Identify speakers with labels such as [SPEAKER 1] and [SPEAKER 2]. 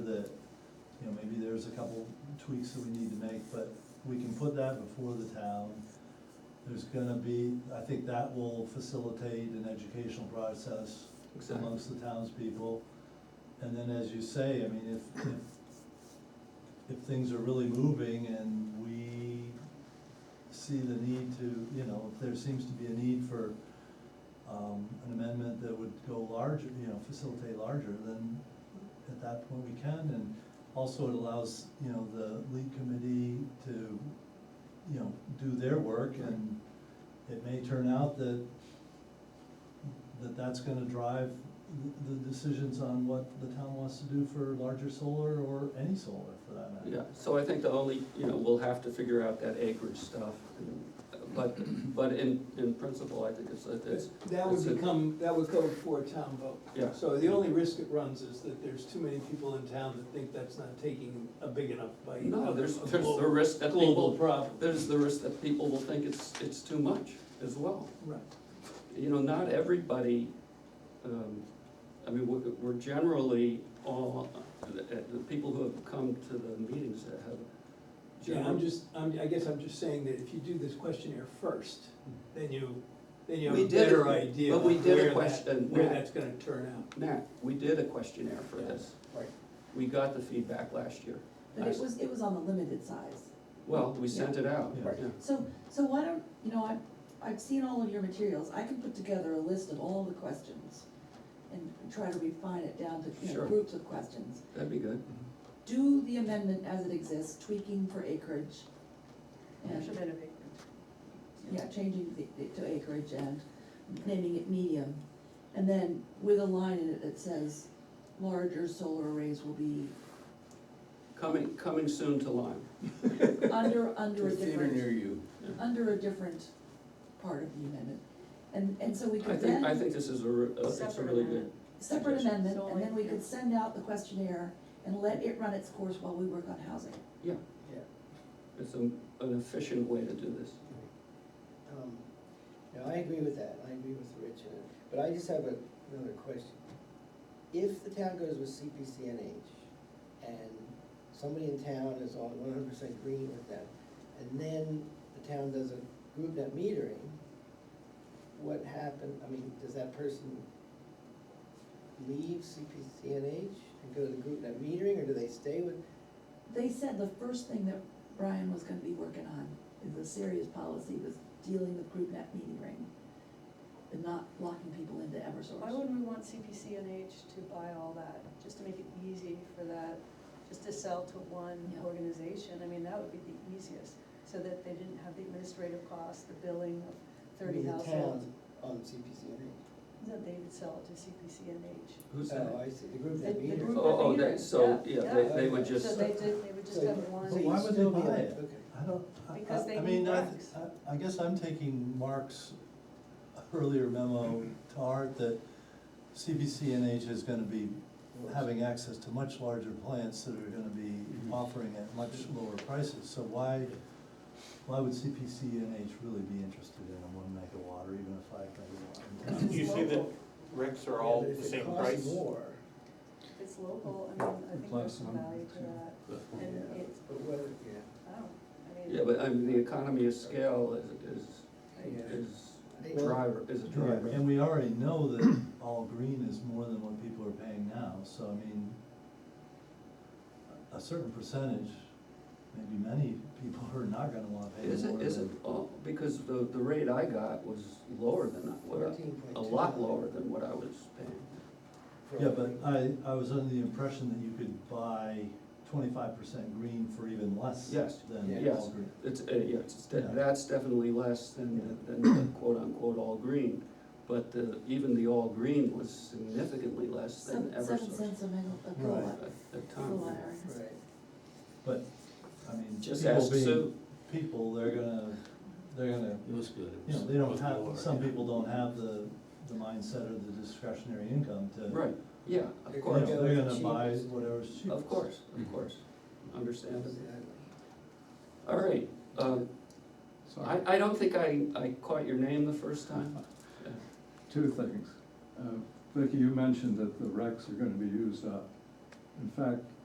[SPEAKER 1] maybe there's a couple tweaks that we need to make, but we can put that before the town. There's gonna be, I think that will facilitate an educational process
[SPEAKER 2] Exactly.
[SPEAKER 1] amongst the townspeople. And then, as you say, I mean, if, if, if things are really moving and we see the need to, you know, if there seems to be a need for, um, an amendment that would go larger, you know, facilitate larger, then at that point we can, and also it allows, you know, the lead committee to, you know, do their work, and it may turn out that, that that's gonna drive the, the decisions on what the town wants to do for larger solar, or any solar for that matter.
[SPEAKER 2] Yeah, so I think the only, you know, we'll have to figure out that acreage stuff, but, but in, in principle, I think it's, it's,
[SPEAKER 3] That would
[SPEAKER 2] it's a-
[SPEAKER 3] become, that would go for a town vote.
[SPEAKER 2] Yeah.
[SPEAKER 3] So the only risk it runs is that there's too many people in town that think that's not taking a big enough bite.
[SPEAKER 2] no,
[SPEAKER 3] of
[SPEAKER 2] there's,
[SPEAKER 3] a
[SPEAKER 2] there's the
[SPEAKER 3] glo-
[SPEAKER 2] risk that
[SPEAKER 3] Global
[SPEAKER 2] people,
[SPEAKER 3] problem.
[SPEAKER 2] there's the risk that people will think it's, it's too much as well.
[SPEAKER 3] Right.
[SPEAKER 2] you know, not everybody, um, I mean, we're, we're generally all, the, the people who have come to the meetings that have.
[SPEAKER 3] Yeah, I'm
[SPEAKER 2] general-
[SPEAKER 3] just, I'm, I guess I'm just saying that if you do this questionnaire first, then you, then you have
[SPEAKER 2] We
[SPEAKER 3] a
[SPEAKER 2] did
[SPEAKER 3] better
[SPEAKER 2] it,
[SPEAKER 3] idea.
[SPEAKER 2] but we
[SPEAKER 3] of
[SPEAKER 2] did a
[SPEAKER 3] where that-
[SPEAKER 2] question,
[SPEAKER 3] Where
[SPEAKER 2] yeah.
[SPEAKER 3] that's gonna turn out.
[SPEAKER 2] Nat, we did a questionnaire for this,
[SPEAKER 3] Right.
[SPEAKER 2] we got the feedback last year,
[SPEAKER 4] But it was, it was on the limited size.
[SPEAKER 2] well, we sent it out,
[SPEAKER 1] Yeah.
[SPEAKER 2] yeah,
[SPEAKER 4] So, so why don't, you know, I, I've seen all of your materials, I can put together a list of all the questions and try to refine it down to, you know,
[SPEAKER 2] Sure.
[SPEAKER 4] groups of questions.
[SPEAKER 2] that'd be good.
[SPEAKER 4] Do the amendment as it exists, tweaking for acreage. And,
[SPEAKER 5] Measurement of acreage.
[SPEAKER 4] yeah, changing the, the- to acreage and naming it medium. And then with a line in it that says, larger solar arrays will be
[SPEAKER 2] Coming, coming soon to Lyme,
[SPEAKER 4] under, under a
[SPEAKER 6] There's theater
[SPEAKER 4] different.
[SPEAKER 6] near you.
[SPEAKER 4] under a different part of the amendment. And, and so we
[SPEAKER 2] I
[SPEAKER 4] could
[SPEAKER 2] think, I
[SPEAKER 4] then,
[SPEAKER 2] think this is a, re- uh, it's a
[SPEAKER 5] Separate
[SPEAKER 2] really good,
[SPEAKER 5] amendment.
[SPEAKER 4] separate amendment,
[SPEAKER 5] So
[SPEAKER 4] and then we
[SPEAKER 5] like-
[SPEAKER 4] could send out the questionnaire and let it run its course while we work on housing.
[SPEAKER 2] it's a- an efficient way to do this.
[SPEAKER 7] Um, No, I agree with that, I agree with Rich, uh, but I just have a- another question. If the town goes with CPCNH and somebody in town is on one hundred percent green with that, and then the town does a group net metering, what happened, I mean, does that person leave CPCNH and go to group net metering, or do they stay with?
[SPEAKER 4] They said the first thing that Brian was gonna be working on is a serious policy was dealing with group net metering and not locking people into
[SPEAKER 5] Why
[SPEAKER 4] Eversource.
[SPEAKER 5] wouldn't we want CPC and H to buy all that, just to make it easy for that, just to sell to one
[SPEAKER 4] Yeah.
[SPEAKER 5] organization? I mean, that would be the easiest, so that they didn't have the administrative costs, the billing of thirty
[SPEAKER 7] The
[SPEAKER 5] households.
[SPEAKER 7] town on CPCNH?
[SPEAKER 5] That they would sell it to CPC and H.
[SPEAKER 2] Who's
[SPEAKER 7] Oh,
[SPEAKER 2] that?
[SPEAKER 7] I see, the group
[SPEAKER 5] The-
[SPEAKER 7] net
[SPEAKER 5] the
[SPEAKER 7] metering.
[SPEAKER 5] group
[SPEAKER 2] Oh, oh,
[SPEAKER 5] net
[SPEAKER 2] that- so,
[SPEAKER 5] metering,
[SPEAKER 2] yeah,
[SPEAKER 5] yeah,
[SPEAKER 2] they,
[SPEAKER 5] yeah.
[SPEAKER 2] they would
[SPEAKER 7] So
[SPEAKER 5] So
[SPEAKER 2] just,
[SPEAKER 5] they did, they would just
[SPEAKER 7] So-
[SPEAKER 5] have
[SPEAKER 1] so
[SPEAKER 5] one.
[SPEAKER 1] why would they buy it?
[SPEAKER 7] Okay.
[SPEAKER 1] I don't, I,
[SPEAKER 5] Because
[SPEAKER 1] I,
[SPEAKER 5] they
[SPEAKER 1] I mean,
[SPEAKER 5] need
[SPEAKER 1] I,
[SPEAKER 5] racks.
[SPEAKER 1] I, I guess I'm taking Mark's earlier memo to heart that CBCNH is gonna be having access to much larger plants that are gonna be offering at much lower prices, so why, why would CPCNH really be interested in a one megawatt or even a five megawatt?
[SPEAKER 5] Because
[SPEAKER 8] You
[SPEAKER 5] it's
[SPEAKER 8] see that
[SPEAKER 5] local,
[SPEAKER 8] recs
[SPEAKER 7] Yeah,
[SPEAKER 8] are all
[SPEAKER 7] but if
[SPEAKER 8] the
[SPEAKER 7] it
[SPEAKER 8] same
[SPEAKER 7] costs
[SPEAKER 8] price?
[SPEAKER 7] more,
[SPEAKER 5] it's local, I mean, I think there's some value to that, and
[SPEAKER 7] yeah,
[SPEAKER 5] it's,
[SPEAKER 7] But whether, yeah,
[SPEAKER 5] I don't, I mean.
[SPEAKER 2] yeah, but I mean, the economy of scale is, is
[SPEAKER 7] Yeah.
[SPEAKER 2] is
[SPEAKER 7] They-
[SPEAKER 2] driver, is a driver.
[SPEAKER 1] And we already know that all green is more than what people are paying now, so I mean, a certain percentage, maybe many people are not gonna wanna pay more
[SPEAKER 2] Is
[SPEAKER 1] than.
[SPEAKER 2] it, is it, oh, because the, the rate I got was lower than I- what, I- a
[SPEAKER 7] 14.2.
[SPEAKER 2] lot lower than what I was paying.
[SPEAKER 7] for
[SPEAKER 1] Yeah,
[SPEAKER 7] a
[SPEAKER 1] but
[SPEAKER 7] week.
[SPEAKER 1] I, I was under the impression that you could buy twenty-five percent green for even less than
[SPEAKER 2] Yes, yes.
[SPEAKER 1] all green.
[SPEAKER 2] It's, uh, yeah, it's, de-
[SPEAKER 1] Yeah.
[SPEAKER 2] that's definitely less than, than the quote unquote all green, but the, even the all green was significantly less than
[SPEAKER 4] Seven seven
[SPEAKER 2] Eversource.
[SPEAKER 4] cents a mega- a
[SPEAKER 1] Right.
[SPEAKER 4] kilowatt,
[SPEAKER 2] at- at the time.
[SPEAKER 4] kilowatt hour.
[SPEAKER 7] Right.
[SPEAKER 1] But, I mean,
[SPEAKER 2] Just
[SPEAKER 1] people
[SPEAKER 2] ask
[SPEAKER 1] being
[SPEAKER 2] Sue,
[SPEAKER 1] people, they're gonna, they're gonna,
[SPEAKER 6] It was good. It
[SPEAKER 1] you know,
[SPEAKER 6] was-
[SPEAKER 1] they
[SPEAKER 6] it
[SPEAKER 1] don't
[SPEAKER 6] was
[SPEAKER 1] have,
[SPEAKER 6] lower,
[SPEAKER 1] some
[SPEAKER 6] yeah.
[SPEAKER 1] people don't have the, the mindset or the discretionary income to.
[SPEAKER 2] right, yeah,
[SPEAKER 7] They're
[SPEAKER 2] of
[SPEAKER 1] uh, You Mm-hmm. know,
[SPEAKER 2] course,
[SPEAKER 7] go
[SPEAKER 1] they're
[SPEAKER 7] with
[SPEAKER 1] gonna
[SPEAKER 7] the
[SPEAKER 1] buy
[SPEAKER 7] cheapest.
[SPEAKER 1] whatever's cheapest.
[SPEAKER 2] of course, of
[SPEAKER 6] Mhm.
[SPEAKER 2] course, understand.
[SPEAKER 7] Exactly.
[SPEAKER 2] All right, um, I, I don't think I, I caught your name the first time.
[SPEAKER 9] Two things. Uh, Vicky, you mentioned that the recs are gonna be used up. In fact,